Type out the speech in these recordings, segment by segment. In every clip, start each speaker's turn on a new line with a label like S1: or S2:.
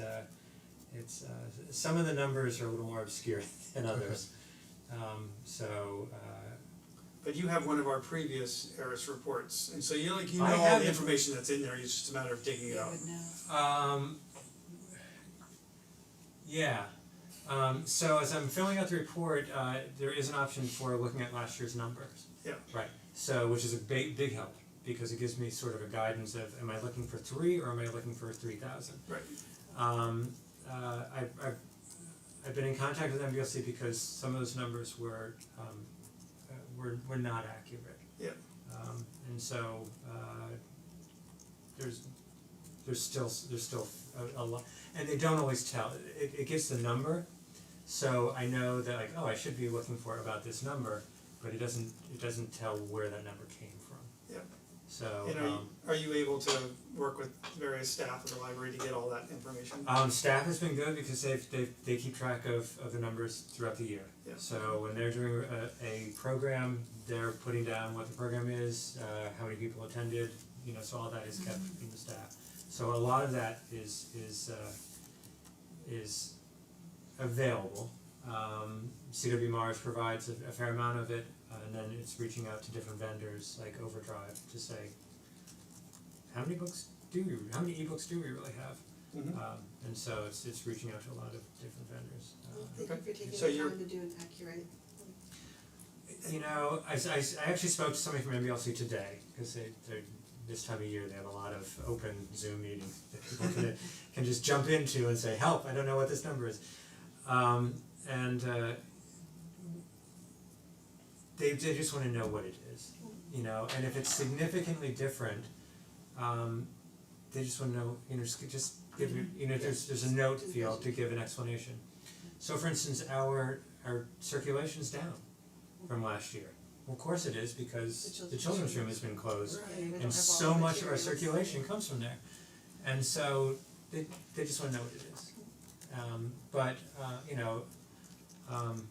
S1: uh, it's uh s- some of the numbers are a little more obscure than others. Um so uh
S2: But you have one of our previous Eris reports, and so you like, you know
S1: I
S2: all
S1: have
S2: the
S1: it.
S2: information that's in there, it's just a matter of digging it
S3: You
S2: out.
S3: would know.
S1: Um, yeah, um, so as I'm filling out the report, uh, there is an option for looking at last year's numbers.
S2: Yeah.
S1: Right, so, which is a big, big help, because it gives me sort of a guidance of, am I looking for three or am I looking for three thousand?
S2: Right.
S1: Um, uh, I've, I've, I've been in contact with MBLC because some of those numbers were, um, uh, were, were not accurate.
S2: Yep.
S1: Um, and so, uh, there's, there's still, s- there's still a, a lot, and they don't always tell, it, it gives the number. So I know that like, oh, I should be looking for about this number, but it doesn't, it doesn't tell where that number came from.
S2: Yep.
S1: So,
S2: And are,
S1: um,
S2: are you able to work with various staff at the library to get all that information?
S1: Um staff has been good because they've they've they keep track of of the numbers throughout the year.
S2: Yeah.
S1: So when they're doing a a program, they're putting down what the program is, uh how many people attended, you know, so all that is kept from the staff. So a lot of that is is uh is available. Um CW Mars provides a a fair amount of it, uh, and then it's reaching out to different vendors like Overdrive to say, how many books do we, how many ebooks do we really have?
S2: Mhm.
S1: Um and so it's it's reaching out to a lot of different vendors. Uh,
S3: Thank you for
S2: So
S3: taking the
S2: you're-
S3: time to do an accurate,
S1: you know, I s- I s- I actually spoke to somebody from MBLC today because they they're this time of year they have a lot of open Zoom meetings that people can can just jump into and say, help, I don't know what this number is. Um and uh they they just wanna know what it is, you know, and if it's significantly different, um they just wanna know, you know, just just give you, you know, there's there's a note field to give an explanation. So for instance, our our circulation's down from last year. Well, of course it is
S3: The
S1: because
S3: children's
S1: the children's
S3: room.
S1: room has been closed
S3: Right. We don't
S1: and
S3: have
S1: so
S3: all the
S1: much of our
S3: materials.
S1: circulation comes from there. And so they they just wanna know what it is. Um but uh you know, um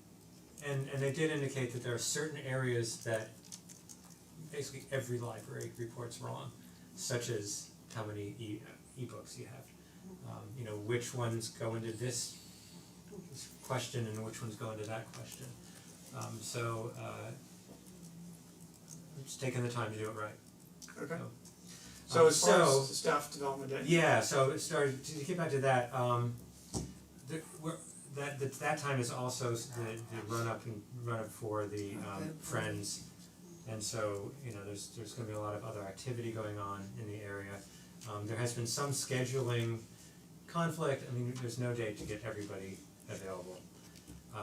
S1: and and they did indicate that there are certain areas that basically every library reports wrong, such as how many e- ebooks you have. Um you know, which ones go into this question and which ones go into that question. Um so uh it's taking the time to do it right.
S2: Okay.
S1: so-
S2: So
S1: um,
S2: as far
S1: so-
S2: as staff development day,
S1: Yeah, so it started, to get back to that, um the we're that that that time is also s- the the run up and run up for the um Friends. And so, you know, there's there's gonna be a lot of other activity going on in the area. Um there has been some scheduling conflict, I mean, there's no date to get everybody available.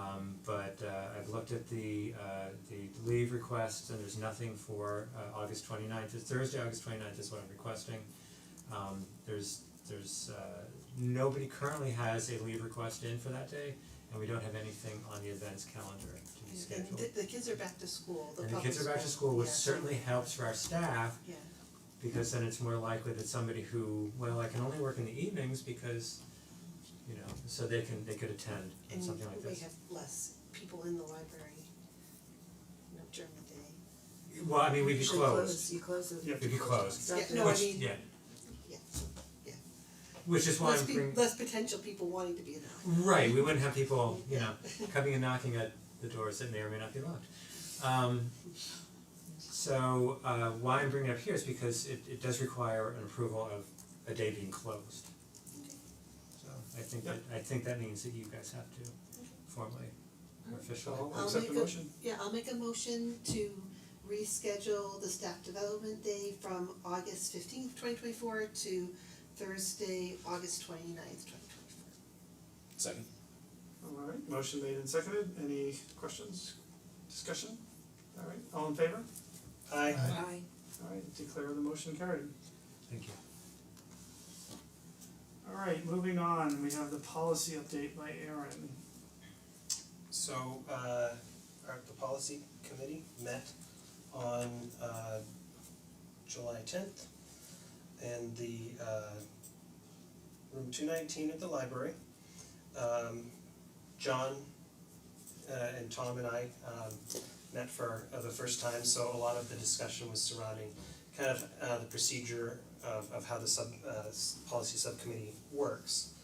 S1: Um but uh I've looked at the uh the leave requests and there's nothing for uh August twenty ninth, it's Thursday, August twenty ninth is what I'm requesting. Um there's there's uh nobody currently has a leave request in for that day and we don't have anything on the events calendar to be
S3: and
S1: scheduled.
S3: the the kids are back to school, the
S1: And the
S3: public
S1: kids are back to school, which
S3: yeah.
S1: certainly helps for our staff
S3: Yeah,
S1: because then it's more likely that somebody who, well, I can only work in the evenings because you know, so they can they could attend and
S3: and
S1: something like
S3: we
S1: this.
S3: have less people in the library, you know, during the day.
S1: Well, I mean, we'd be
S4: Usually
S1: close,
S4: close, you close it.
S2: Yeah.
S1: we'd be close,
S3: Yeah,
S4: Exactly.
S3: no, I
S1: which,
S3: mean,
S1: yeah,
S3: yeah,
S1: which is why
S3: less
S1: I'm
S3: pe-
S1: bringing,
S3: less potential people wanting to be in the library.
S1: right, we wouldn't have people, you know, coming and knocking at the doors that may or may not be locked. Um, so, uh, why I'm bringing it up here is because it, it does require an approval of a day being closed. So, I think that, I think that means that you guys have to formally, or officially.
S2: so I'll
S3: I'll
S2: accept the
S3: make a-
S2: motion.
S3: Yeah, I'll make a motion to reschedule the staff development day from August fifteenth, twenty twenty four to Thursday, August twenty ninth, twenty twenty four.
S5: Second.
S2: Alright, motion made and seconded, any questions, discussion? Alright, all in favor? Aye.
S4: Aye.
S2: Alright, declare the motion carried.
S1: Thank you.
S2: Alright, moving on, we have the policy update by Aaron.
S6: So uh our the policy committee met on uh July tenth in the uh room two nineteen at the library. Um John uh and Tom and I um met for uh, the first time, so a lot of the discussion was surrounding kind of uh the procedure of of how the sub uh s- policy subcommittee works.